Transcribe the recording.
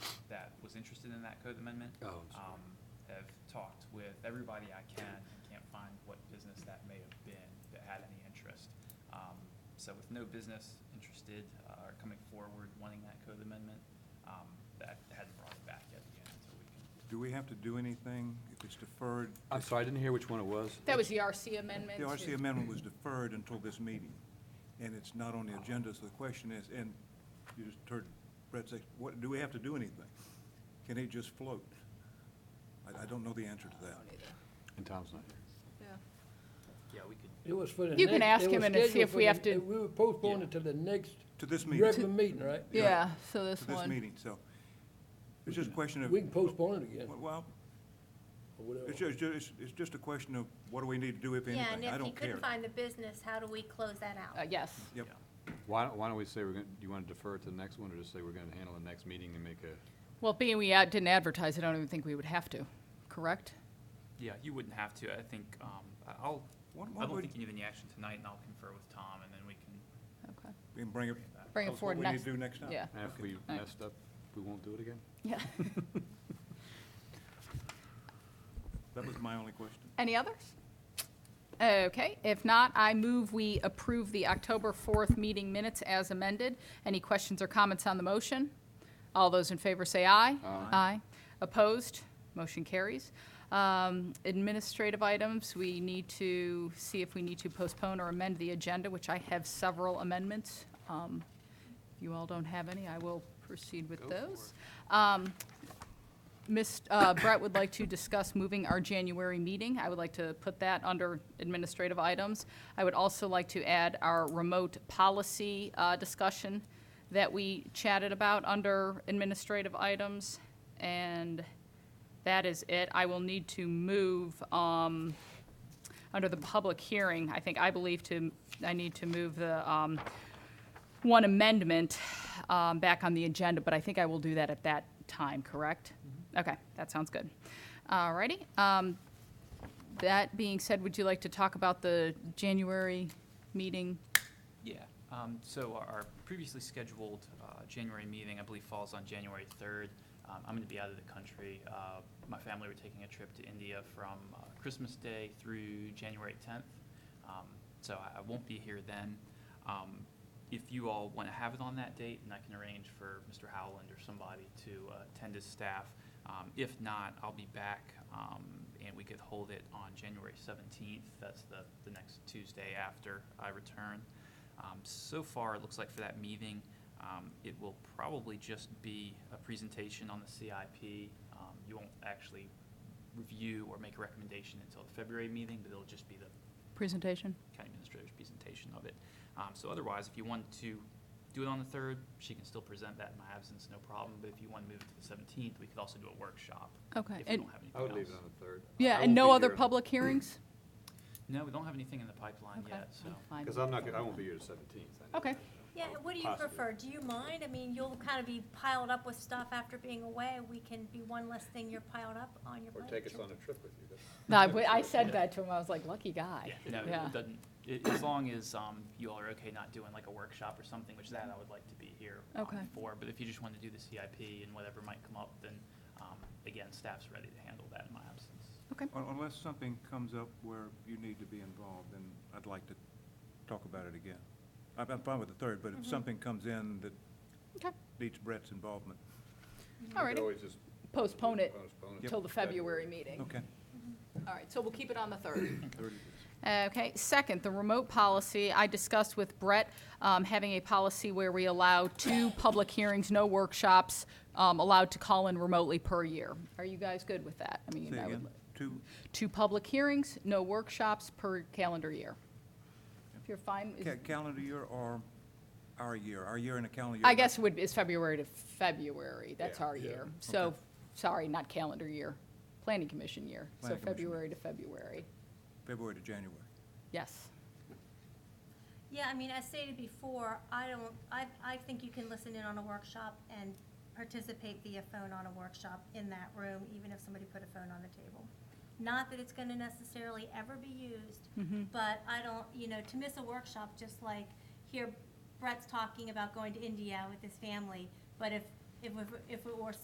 listed in that code amendment. Oh, I'm sorry. Um, have talked with everybody I can, and can't find what business that may have been that had any interest. Um, so with no business interested, uh, or coming forward wanting that code amendment, um, that hadn't brought it back yet again, so we can Do we have to do anything if it's deferred? I'm sorry, I didn't hear which one it was. That was the RC amendment. The to- RC amendment was deferred until this meeting, and it's not on the agenda, so the question is, and you just heard Brett say, what, do we have to do anything? Can it just float? I, I don't know the answer to that. And Tom's not here. Yeah. Yeah, we could, It was for the You can next- ask it was him and see scheduled if for we the- have to- We were postponed until the next To this regular meeting, meeting, right? Yeah. Yeah, so to this meeting, so it's just a question of. We can postpone it again, or Well, whatever. it's just, it's, it's just a question of what do we need to do if anything? Yeah, and I if you don't care. couldn't find the business, how do we close that out? uh, Yes. Yep, Why, don't- why don't we say we're going, do you want to defer it to the next one, or just say we're going to handle the next meeting and make a, Well, being we ad- didn't advertise, I don't even think we would have to, correct? Yeah, you wouldn't have to. I think, um, I- I'll, What- I what don't would- think you need any action tonight, and I'll confer with Tom, and then we can Okay. and bring it. Bring tell it us forward What we need next. to do next time. Yeah, and if we Alright. messed up, we won't do it again? yeah. That was my only question. Any others? Okay, if not, I move we approve the October 4th meeting minutes as amended. Any questions or comments on the motion? All those in favor say aye. Aye. Uh, Opposed? Motion carries. Um, Administrative items, we need to see if we need to postpone or amend the agenda, which I have several amendments. Um, If you all don't have any, I will proceed with those. Um, Ms. uh, Brett would like to discuss moving our January meeting. I would like to put that under administrative items. I would also like to add our remote policy uh, discussion that we chatted about under administrative items. And that is it. I will need to move, um, under the public hearing, I think, I believe to, I need to move the, um, one amendment um, back on the agenda, but I think I will do that at that time, correct? Okay, that sounds good. All righty. um, That being said, would you like to talk about the January meeting? Yeah, um, so our- our previously scheduled, uh, January meeting, I believe, falls on January third. Um, I'm gonna be out of the country. Uh, my family were taking a trip to India from, uh, Christmas Day through January tenth. Um, so I, I won't be here then. Um, if you all wanna have it on that date, and I can arrange for Mr. Howland or somebody to uh, attend as staff. Um, if not, I'll be back, um, and we could hold it on January seventeenth. That's the, the next Tuesday after I return. Um, So far, it looks like for that meeting, um, it will probably just be a presentation on the CIP. Um, You won't actually review or make a recommendation until the February meeting, but it'll just be the Presentation? county administrator's presentation of it. Um, So otherwise, if you want to do it on the 3rd, she can still present that in my absence, no problem. But if you want to move it to the 17th, we could also do a workshop. Okay, If we and- don't have anything else. I would leave it on the third. Yeah, and no other public hearings? No, we don't have anything in the pipeline Okay, yet, so. fine. Because I'm not, go- I won't be here the seventeenth. Okay. Yeah, what do you prefer? Do you mind? I mean, you'll kind of be piled up with stuff after being away. We can be one less thing you're piled up on your Or plate. take us on a trip with you. that's- No, I w- I said that to him, I was like, lucky guy. Yeah, no, Yeah. it doesn't, i- as long as um, you all are okay not doing like a workshop or something, which that I would like to be here um, Okay. for. But if you just want to do the CIP and whatever might come up, then um, again, staff's ready to handle that in my absence. Okay, Un- Unless something comes up where you need to be involved, then I'd like to talk about it again. I'm, I'm fine with the third, but if something comes in that Mm-hmm. okay, needs Brett's involvement, all We could righty. always just Postpone it postpone Yep. till the February meeting. okay. All right, so we'll keep it on the 3rd. Third it is. Okay, second, the remote policy, I discussed with Brett, um, having a policy where we allow two public hearings, no workshops, um, allowed to call in remotely per year. Are you guys good with that? I mean, Say I would, again, two, two public hearings, no workshops per calendar year. If you're fine, is- ca- calendar year or our year? Our year and a calendar year? I guess would, is February to February, that's Yeah, our yeah. year. So, Okay. sorry, not calendar year, planning commission year, so Planning commission. February to February, February to January. yes. Yeah, I mean, as stated before, I don't, I, I think you can listen in on a workshop and participate via phone on a workshop in that room, even if somebody put a phone on the table. Not that it's gonna necessarily ever be used, but I don't, you know, to miss a workshop, just like here Brett's talking about going to India with his family, but if, if, it- if it were